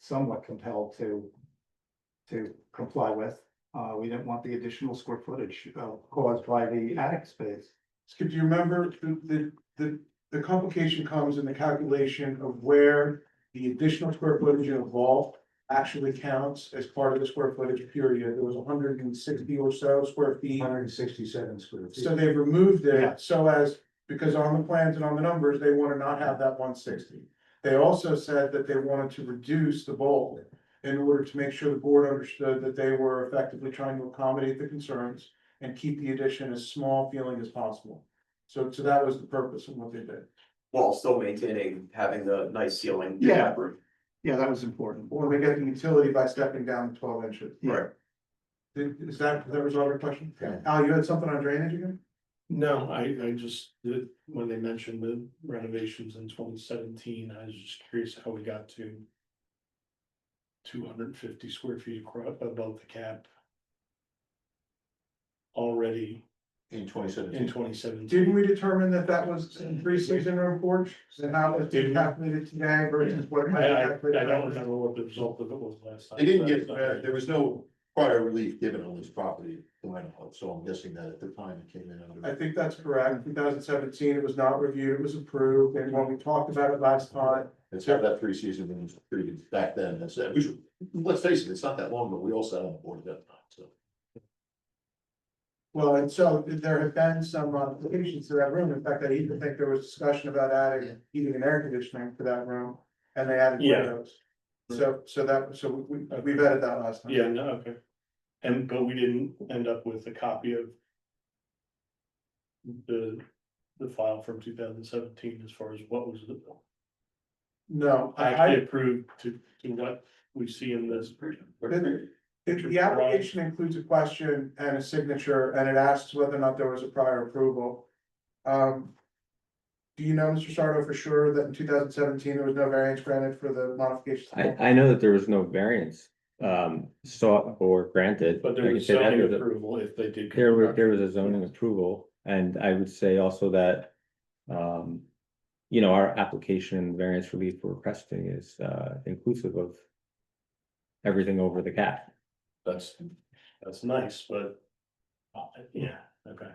somewhat compelled to. To comply with, uh, we didn't want the additional square footage uh, caused by the attic space. Skip, do you remember the, the, the, the complication comes in the calculation of where the additional square footage involved actually counts as part of the square footage period. There was hundred and sixty or so square feet. Hundred and sixty-seven square feet. So they've removed Yeah. it so as, because on the plans and on the numbers, they want to not have that one sixty. They also said that they wanted to reduce the bulk in order to make sure the board understood that they were effectively trying to accommodate the concerns and keep the addition as small feeling as possible. So, so that was the purpose of what they did. while still maintaining, having the nice ceiling. Yeah. Yeah, that was important. Or they get the utility by stepping down the twelve inches. Right. Did- Is that, that resolve your question? Yeah. Al, you had something on drainage again? No, I, I just, the- when they mentioned the renovations in twenty seventeen, I was just curious how we got to. Two hundred and fifty square feet across above the cap. Already In twenty in seventeen. twenty seventeen, Didn't we determine that that was in three season room porch, and how it's been calculated today versus what? it I, might I, have I calculated? don't remember what the result of it was last time. They didn't get, uh, there was no prior relief given on this property, to my knowledge, so I'm guessing that at the time it came in I under. think that's correct, two thousand seventeen, it was not reviewed, it was approved, and when we talked about it last time, It's had that three season, when it was pretty good back then, that's it, we should, let's face it, it's not that long, but we all sat on the board at that time, so. well, and so there have been some modifications to that room, in fact, I even think there was discussion about adding heating and air conditioning to that room, and they added Yeah. windows. So, so that, so we, we vetted that last time. Yeah, no, okay. And, but we didn't end up with a copy of. The, the file from two thousand seventeen as far as what was the. No, I, I, actually approved to, to what we see in this. The, the application includes a question and a signature, and it asks whether or not there was a prior approval. Um. Do you know, Mr. Sardo, for sure that in two thousand seventeen, there was no variance granted for the modifications? I, I know that there was no variance, um, sought or granted. But I there can was say that zoning was a- approval if they did. There were, there was a zoning approval, and I would say also that, um. You know, our application and variance relief we're requesting is, uh, inclusive of. Everything over the cap. That's, that's nice, but. uh, Yeah, okay.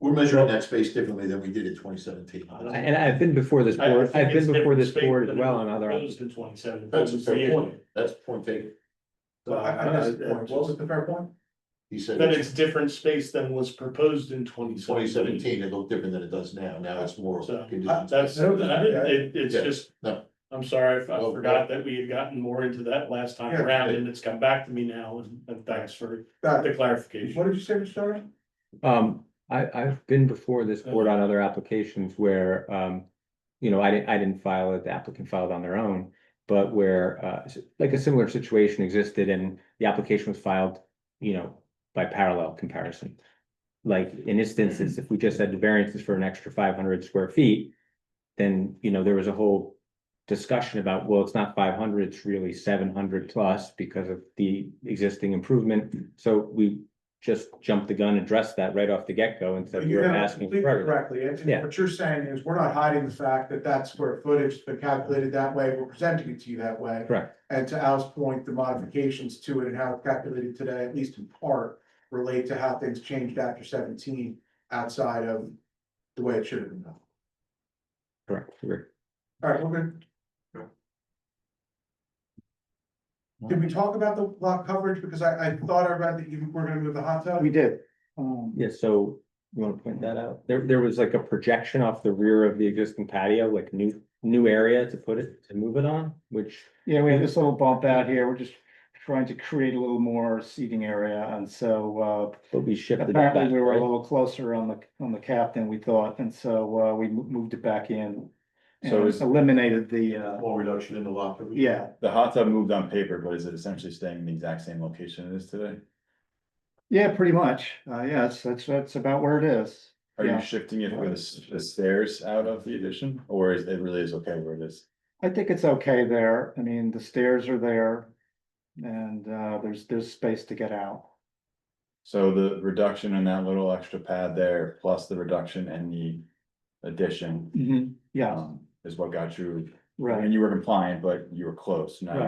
We're measuring that space differently than we did in twenty seventeen. I- And I've been before this I- I board, think I've been it's before different this space board as than well on it other. proposed in 27. That's a fair point, that's a point taken. Well, I, I missed the point, what Uh, was the fair point? He said Then it's it's different space than was proposed in twenty twenty seventeen, it looked different than it does now, now it's more. So, conditions. That's, I didn't- it, it's Yeah, just, no. I'm sorry, if I Well, forgot that we had gotten more into that last time Yeah. around and it's come back to me now and, and thanks for Got the it. clarification. What did you say, Mr. Sardo? Um, I, I've been before this board on other applications where, um, you know, I didn't, I didn't file it, the applicant filed on their own. But where, uh, s- like a similar situation existed and the application was filed, you know, by parallel comparison. Like in this Mm-hmm. instance, if we just had the variances for an extra five hundred square feet, then, you know, there was a whole discussion about, well, it's not five hundred, it's really seven hundred plus because of the existing improvement. So we just jumped the gun, addressed that right off the get-go instead of You we're have it asking. completely for it. Correctly, and and Yeah. what you're saying is, we're not hiding the fact that that square footage, has been calculated that way, we're presenting it to you that way. Correct, And to Al's point, the modifications to it and how it's calculated today, at least in part, relate to how things changed after seventeen outside of the way it should have been done. correct. We're- All right, we're good. Did we talk about the lot coverage? Because I, I thought I read that you were gonna move the hot tub. We did, um, Yeah, so you wanna point that out? There, there was like a projection off the rear of the existing patio, like new, new area to put it, to move it on, which. yeah, we had this little bump out here, we're just trying to create a little more seating area, and so, uh, But we shifted. it Apparently, back, we were a right? little closer on the, on the cap than we thought, and so, uh, we mo- moved it back in. So And is- eliminated the, uh, Small reduction in the lot. coverage. yeah, The hot tub moved on paper, but is it essentially staying in the exact same location it is today? yeah, pretty much, uh, yes, that's, that's about where it is. Are Yeah. you shifting it for the s- the stairs out of the addition, or is it really is okay where it is? I think it's okay there, I mean, the stairs are there, and, uh, there's, there's space to get out. So the reduction in that little extra pad there, plus the reduction in the addition, Yeah, um, is what got you. right. And you were compliant, but you were close, now Right.